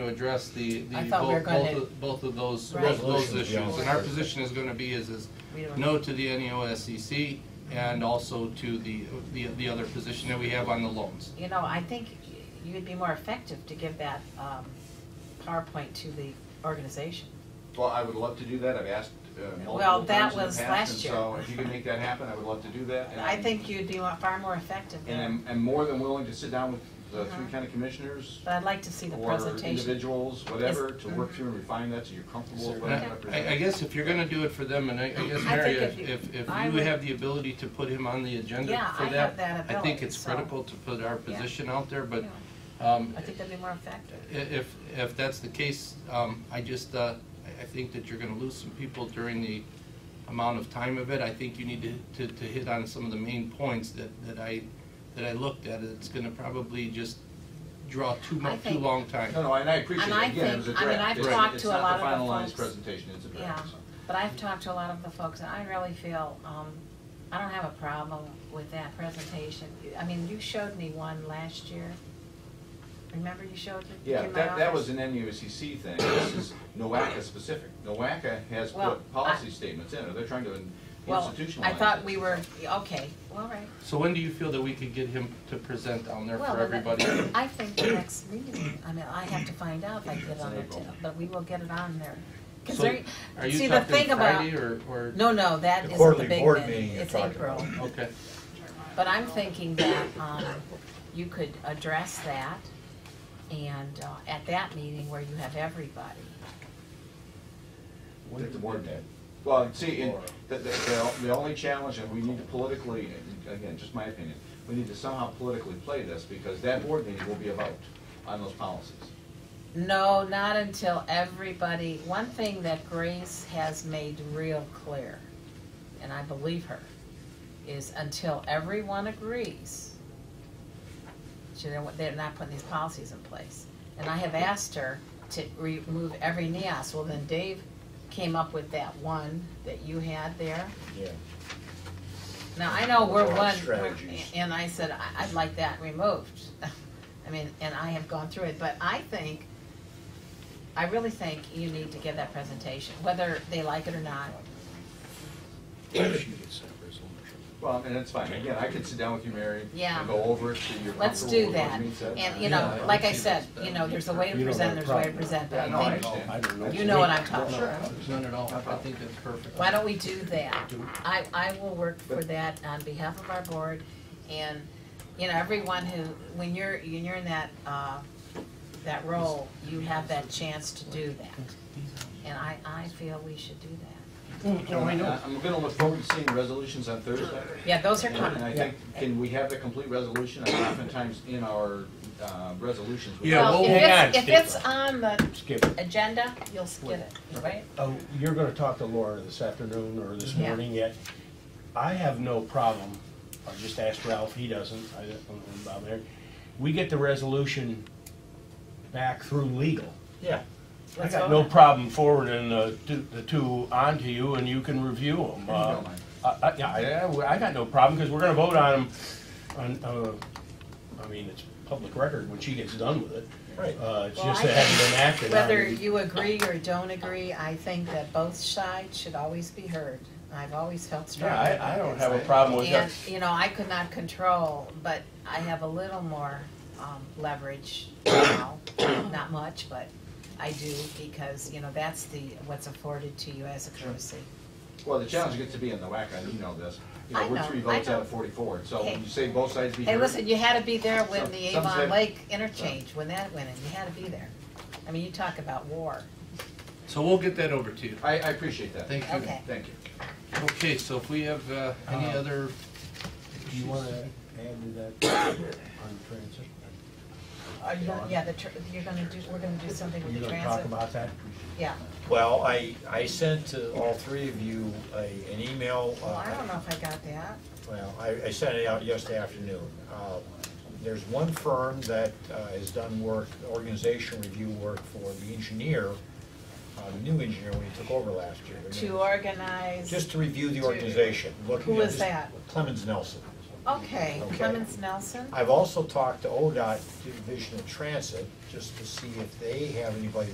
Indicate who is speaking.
Speaker 1: to address the, the,
Speaker 2: I thought we were
Speaker 1: both, both
Speaker 2: gonna-
Speaker 1: of- both of those,
Speaker 2: Right.
Speaker 1: both of those
Speaker 3: Resolutions, yeah.
Speaker 1: issues. And our position is gonna be is, is
Speaker 2: We don't-
Speaker 1: no to the E NEOSCC and also to the, the, the other position that we have on the loans.
Speaker 2: You know, I think y- you'd be more effective to give that um, PowerPoint to the organization.
Speaker 4: Well, I would love to do that, I've asked uh,
Speaker 2: Well,
Speaker 4: multiple
Speaker 2: that
Speaker 4: times in the
Speaker 2: was
Speaker 4: past,
Speaker 2: last
Speaker 4: and
Speaker 2: year.
Speaker 4: so if you can make that happen, I would love to do that. and
Speaker 2: I
Speaker 4: I'm-
Speaker 2: think you'd be wa- far more effective
Speaker 4: And
Speaker 2: there.
Speaker 4: I'm, I'm more than willing to sit down with the three
Speaker 2: Mhm.
Speaker 4: county commissioners
Speaker 2: But I'd like to see the
Speaker 4: or
Speaker 2: presentation.
Speaker 4: individuals, whatever, to work through and refine that so you're comfortable with what I'm
Speaker 1: And I, I
Speaker 4: representing.
Speaker 1: guess if you're gonna do it for them, and I, I guess,
Speaker 2: I
Speaker 1: Mary,
Speaker 2: think
Speaker 1: if,
Speaker 2: if you-
Speaker 1: if if
Speaker 2: I
Speaker 1: you
Speaker 2: would-
Speaker 1: have the ability to put him on the agenda
Speaker 2: Yeah,
Speaker 1: for
Speaker 2: I have that
Speaker 1: that, I think
Speaker 2: ability,
Speaker 1: it's
Speaker 2: so-
Speaker 1: critical to put our
Speaker 2: Yeah.
Speaker 1: position out there, but,
Speaker 2: Yeah,
Speaker 1: um,
Speaker 2: I think that'd be more effective.
Speaker 1: i- if, if that's the case, um, I just, uh, I I think that you're gonna lose some people during the amount of time of it. I think you need to, to, to hit on some of the main points that, that I, that I looked at. It's gonna probably just draw too mu,
Speaker 2: I
Speaker 1: too
Speaker 2: think-
Speaker 1: long time.
Speaker 4: No, no, and I appreciate
Speaker 2: And I
Speaker 4: it, again, it was a
Speaker 2: think- I mean, I've
Speaker 4: draft, it's
Speaker 2: talked
Speaker 4: it's
Speaker 2: to a lot
Speaker 4: not the
Speaker 2: of the
Speaker 4: finalized
Speaker 2: folks.
Speaker 4: presentation, it's a draft,
Speaker 2: Yeah.
Speaker 4: so.
Speaker 2: But I've talked to a lot of the folks, and I really feel, um, I don't have a problem with that presentation. I mean, you showed me one last year. Remember you showed it
Speaker 4: Yeah,
Speaker 2: in my
Speaker 4: that, that
Speaker 2: office?
Speaker 4: was an NUSCC E thing, this is NOACA specific. NOACA has
Speaker 2: Well,
Speaker 4: put policy
Speaker 2: I-
Speaker 4: statements in, or they're trying to in-
Speaker 2: Well,
Speaker 4: institutionalize it.
Speaker 2: I thought we were, okay, well, right.
Speaker 1: So when do you feel that we could get him to present down there
Speaker 2: Well,
Speaker 1: for
Speaker 2: but
Speaker 1: everybody?
Speaker 2: that- I think the next meeting, I mean, I have to find out if I can get it on the,
Speaker 4: It's in
Speaker 2: t-
Speaker 4: April.
Speaker 2: but we will get it on there. 'Cause
Speaker 1: So
Speaker 2: there-
Speaker 1: Are you
Speaker 2: see, the
Speaker 1: talking
Speaker 2: thing about-
Speaker 1: Friday or, or?
Speaker 2: No, no, that
Speaker 3: The
Speaker 2: isn't the
Speaker 3: quarterly
Speaker 2: big
Speaker 3: board
Speaker 2: thing,
Speaker 3: meeting you're
Speaker 2: it's
Speaker 3: talking
Speaker 2: April.
Speaker 1: Okay.
Speaker 2: But I'm thinking that, um, you could address that and, uh, at that meeting where you have everybody.
Speaker 4: That the board did. Well, see, and the, the- the, the only challenge, and we need to politically, again, just my opinion, we need to somehow politically play this, because that board meeting will be a vote on those policies.
Speaker 2: No, not until everybody, one thing that Grace has made real clear, and I believe her, is until everyone agrees, she, they're they're not putting these policies in place. And I have asked her to remove every NEOS, well then Dave came up with that one that you had there.
Speaker 3: Yeah.
Speaker 2: Now, I know we're
Speaker 3: Broad
Speaker 2: one, we're-
Speaker 3: strategies.
Speaker 2: and I said, "I- I'd like that removed. I mean, and I have gone through it, but I think, I really think you need to give that presentation, whether they like it or not.
Speaker 4: Well, and that's fine, again, I could sit down with you, Mary,
Speaker 2: Yeah.
Speaker 4: and go over it, so you're comfortable with what
Speaker 2: Let's do that.
Speaker 4: being said.
Speaker 2: And, you
Speaker 3: Yeah,
Speaker 2: know,
Speaker 3: I
Speaker 2: like I
Speaker 3: see
Speaker 2: said, you know, there's a way to
Speaker 3: You don't
Speaker 2: present,
Speaker 3: have a
Speaker 2: there's a way to
Speaker 3: problem.
Speaker 2: present,
Speaker 4: Yeah,
Speaker 2: but
Speaker 4: no, I
Speaker 2: I think,
Speaker 4: understand.
Speaker 3: don't know.
Speaker 2: you know what I'm talking
Speaker 4: Sure.
Speaker 2: about.
Speaker 1: None at all. I think that's perfect.
Speaker 2: Why don't we do that? I, I will work for that on behalf of our board, and, you know, everyone who, when you're, when you're in that, uh, that role, you have that chance to do that. And I, I feel we should do that.
Speaker 4: I'm gonna look forward to seeing resolutions on Thursday.
Speaker 2: Yeah, those are
Speaker 4: And and I
Speaker 2: coming.
Speaker 4: think, can we have the complete resolution, and oftentimes in our, uh, resolutions. we-
Speaker 3: Yeah,
Speaker 2: Well,
Speaker 3: well,
Speaker 2: if
Speaker 3: hang
Speaker 2: it's- If
Speaker 3: on, Skip.
Speaker 2: it's on the
Speaker 3: Skip,
Speaker 2: agenda, you'll skip it, right?
Speaker 3: oh, you're gonna talk to Laura this afternoon or this
Speaker 2: Yeah.
Speaker 3: morning yet. I have no problem, I just asked Ralph, he doesn't, I don't know about there. We get the resolution back through legal.
Speaker 5: Yeah.
Speaker 3: I
Speaker 2: Let's
Speaker 3: got
Speaker 2: vote on
Speaker 3: no
Speaker 2: it.
Speaker 3: problem forwarding the, two- the two onto you and you can review them. Uh,
Speaker 4: don't mind.
Speaker 3: I, I, yeah, I- I got no problem, because we're gonna vote on them, on, uh, I mean, it's public record when she gets done with it.
Speaker 5: Right.
Speaker 3: Uh, it's
Speaker 2: Well,
Speaker 3: just
Speaker 2: I
Speaker 3: that it hasn't been acted on.
Speaker 2: Whether you agree or don't agree, I think that both sides should always be heard. I've always felt
Speaker 3: Yeah,
Speaker 2: strongly.
Speaker 3: I, I don't have a problem with that.
Speaker 2: And, you know, I could not control, but I have a little more um, leverage now. Not much, but I do because, you know, that's the, what's afforded to you as a courtesy.
Speaker 4: Well, the challenge gets to be in the whack, and you know this. You
Speaker 2: I
Speaker 4: know, we're
Speaker 2: know,
Speaker 4: three
Speaker 2: I
Speaker 4: votes out
Speaker 2: know.
Speaker 4: of forty-four, so
Speaker 2: Hey.
Speaker 4: when you say both sides be
Speaker 2: Hey,
Speaker 4: heard.
Speaker 2: listen, you had to be there when the
Speaker 4: Some- some
Speaker 2: Avon
Speaker 4: say-
Speaker 2: Lake interchange, when that went in, you had to be there. I mean, you talk about war.
Speaker 1: So we'll get that over to you.
Speaker 4: I, I appreciate that.
Speaker 1: Thank you.
Speaker 2: Okay.
Speaker 4: Thank you.
Speaker 1: Okay, so if we have uh, any
Speaker 3: Uh,
Speaker 1: other,
Speaker 3: Do you wanna add to that on transit?
Speaker 2: Are you gonna, Uh, yeah, the, tr- you're gonna do, we're gonna do something with
Speaker 3: You
Speaker 2: the
Speaker 3: gonna talk
Speaker 2: transit.
Speaker 3: about that?
Speaker 2: Yeah,
Speaker 5: Well, I, I sent to all three of you a, an email. uh,
Speaker 2: well, I don't know if I got that.
Speaker 5: Well, I, I sent it out yesterday afternoon. Uh, There's one firm that uh, has done work, organization review work for the engineer, uh, the new engineer when he took over last year.
Speaker 2: To organize.
Speaker 5: Just to review the organization. look-
Speaker 2: Who
Speaker 5: you know,
Speaker 2: is
Speaker 5: just-
Speaker 2: that?
Speaker 5: Clemens Nelson.
Speaker 2: Okay,
Speaker 5: Okay.
Speaker 2: Clemens Nelson?
Speaker 5: I've also talked to ODOT Division of Transit, just to see if they have anybody